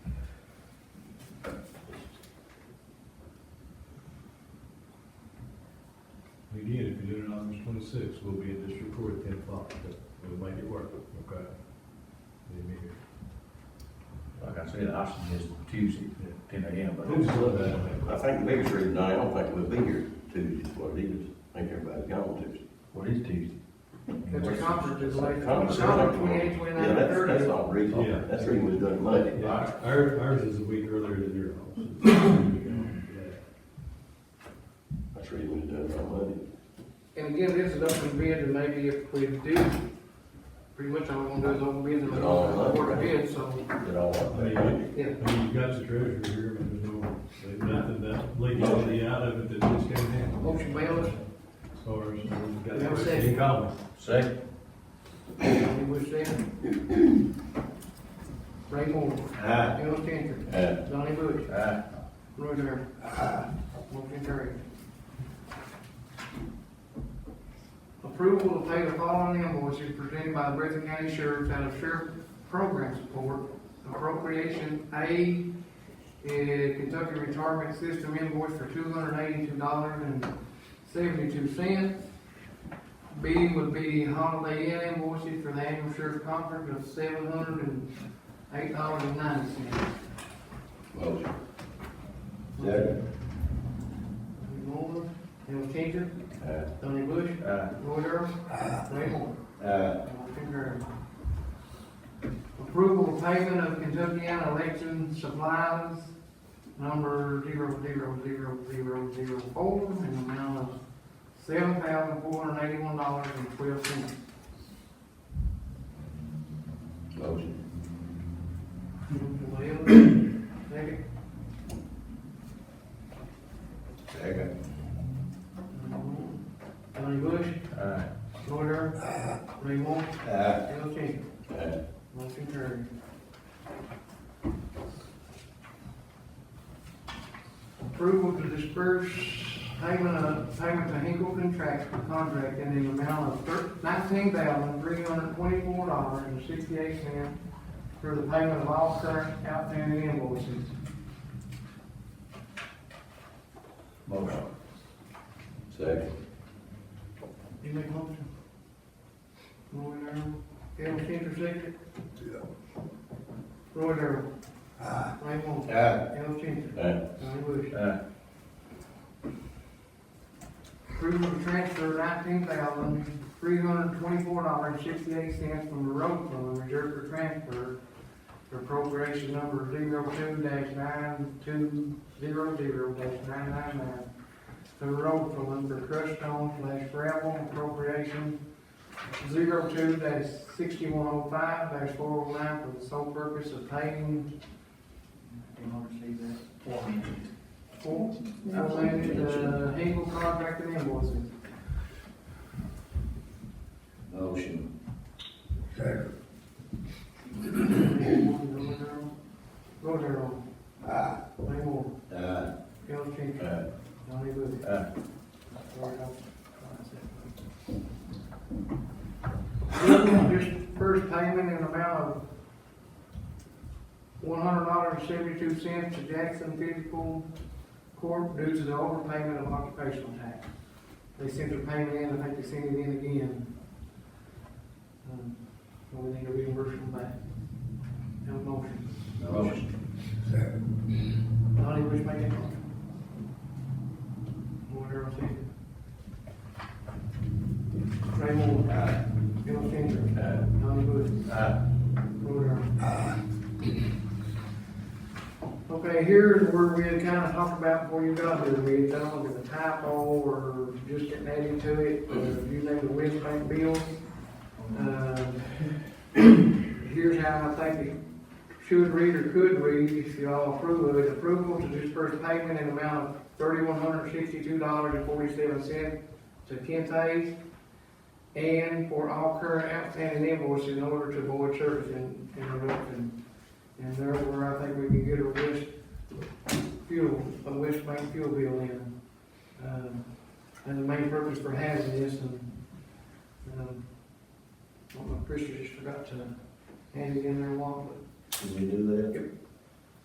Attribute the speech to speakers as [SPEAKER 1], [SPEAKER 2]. [SPEAKER 1] June sixth, we'll be in district court at ten o'clock, but we'll make it work, okay? They may hear.
[SPEAKER 2] Like I said, the option is Tuesday, ten AM, but.
[SPEAKER 1] Who's love that?
[SPEAKER 3] I think the biggest reason I don't think we'll be here Tuesday is what it is. I think everybody's gone Tuesday.
[SPEAKER 2] What is Tuesday?
[SPEAKER 4] It's a conference, it's like,
[SPEAKER 3] Conference, I
[SPEAKER 4] October
[SPEAKER 3] think we'll-
[SPEAKER 4] twenty-eighth,
[SPEAKER 3] Yeah,
[SPEAKER 4] twenty-ninth,
[SPEAKER 3] that's, that's
[SPEAKER 4] thirtieth.
[SPEAKER 3] not the reason,
[SPEAKER 1] Yeah.
[SPEAKER 3] that's the reason we done Monday.
[SPEAKER 1] Yeah, Ours, ours is a week earlier than your own.
[SPEAKER 3] That's the reason we done it on Monday.
[SPEAKER 4] And again, this is open bid, and maybe if we do, pretty much all we're gonna do is open bid and we're gonna award the bid, so,
[SPEAKER 3] Did all of
[SPEAKER 1] I mean,
[SPEAKER 3] that.
[SPEAKER 4] yeah.
[SPEAKER 1] I mean, you got the treasurer here, but there's no, there's nothing that leaks any out of it that just came in.
[SPEAKER 4] Motion, Bayless.
[SPEAKER 1] As far as, we've
[SPEAKER 4] We have a
[SPEAKER 1] got,
[SPEAKER 4] second.
[SPEAKER 1] any comments?
[SPEAKER 2] Second.
[SPEAKER 4] Any wish there? Ray Moore,
[SPEAKER 2] Aye.
[SPEAKER 4] Al Changer,
[SPEAKER 3] Uh,
[SPEAKER 4] Donnie Bush,
[SPEAKER 2] Aye.
[SPEAKER 4] Roy Darrell. Ah. Motion carried. Approval to pay the following invoices presented by the Breathitt County Sheriff out of Sheriff Program Support. Appropriation A, eh, Kentucky Retirement System invoice for two hundred eighty-two dollars and seventy-two cents. B would be Holiday Inn invoices for the annual sheriff conference of seven hundred and eight dollars and ninety cents.
[SPEAKER 3] motion.
[SPEAKER 4] Moore, Al Changer,
[SPEAKER 3] Uh,
[SPEAKER 4] Donnie Bush,
[SPEAKER 2] Aye.
[SPEAKER 4] Roy Darrell, Ray Moore.
[SPEAKER 2] Aye.
[SPEAKER 4] Motion carried. Approval of payment of Kentuckiana election supplies, number zero zero zero zero zero four, in the amount of seven thousand four hundred eighty-one dollars and twelve cents.
[SPEAKER 3] motion.
[SPEAKER 4] Second,
[SPEAKER 2] Second.
[SPEAKER 4] Donnie Bush,
[SPEAKER 2] Aye.
[SPEAKER 4] Roy Darrell, Ray Moore,
[SPEAKER 2] Aye.
[SPEAKER 4] Al Changer.
[SPEAKER 3] Uh,
[SPEAKER 4] Motion carried. Approval to disperse payment of, payment to Hinkle contract, contract in the amount of thir- nineteen thousand, three hundred twenty-four dollars and sixty-eight cents for the payment of all current outstanding invoices.
[SPEAKER 2] Motion.
[SPEAKER 3] second.
[SPEAKER 4] You make a motion? Roy Darrell, Al Changer second? Roy Darrell. Aye. Ray Moore.
[SPEAKER 2] Aye.
[SPEAKER 4] Al Changer.
[SPEAKER 3] Uh,
[SPEAKER 4] Donnie Bush.
[SPEAKER 2] Aye.
[SPEAKER 4] Approval to transfer nineteen thousand, three hundred twenty-four dollars, sixty-eight cents from the road fund reserved for transfer for appropriation number zero two dash nine two zero zero dash nine nine nine to the road fund for crushed stone slash gravel appropriation zero two dash sixty-one oh five dash four oh nine for the sole purpose of paying. I don't understand that. Four hundred. Four? Outlanded, uh, Hinkle contract and invoices.
[SPEAKER 2] Motion.
[SPEAKER 4] Go Darrell. Aye. Ray Moore.
[SPEAKER 2] Aye.
[SPEAKER 4] Al Changer.
[SPEAKER 3] uh,
[SPEAKER 4] Donnie Bush.
[SPEAKER 2] Aye.
[SPEAKER 4] This first payment in amount of one hundred dollars and seventy-two cents to Jackson Physical Corp. due to the overpayment of occupational tax. They sent the payment in, I think they sent it in again. Um, so We need to reimburse them back. Have a motion.
[SPEAKER 2] Motion.
[SPEAKER 4] Donnie, which make that motion? Moore, Darrell, second. Ray Moore.
[SPEAKER 2] Aye.
[SPEAKER 4] Bill Changer.
[SPEAKER 3] uh,
[SPEAKER 4] Donnie Bush.
[SPEAKER 2] Aye.
[SPEAKER 4] Roy Darrell. Okay, here's where we had kind of talked about before you got here, we had done with the typo or just getting added to it, or using the West Bank bill. Um, Here's how I think it should read or could read, if y'all approve of it, approval to disperse payment in amount of thirty-one hundred sixty-two dollars and forty-seven cents to Kentays and for all current outstanding invoices in order to avoid service in- interruption. And therefore, I think we can get a West fuel, a West Bank fuel bill in. Um, And the main purpose for having this, and, um, well, my Christian just forgot to hand it in there a while,
[SPEAKER 2] Did we do that?
[SPEAKER 4] but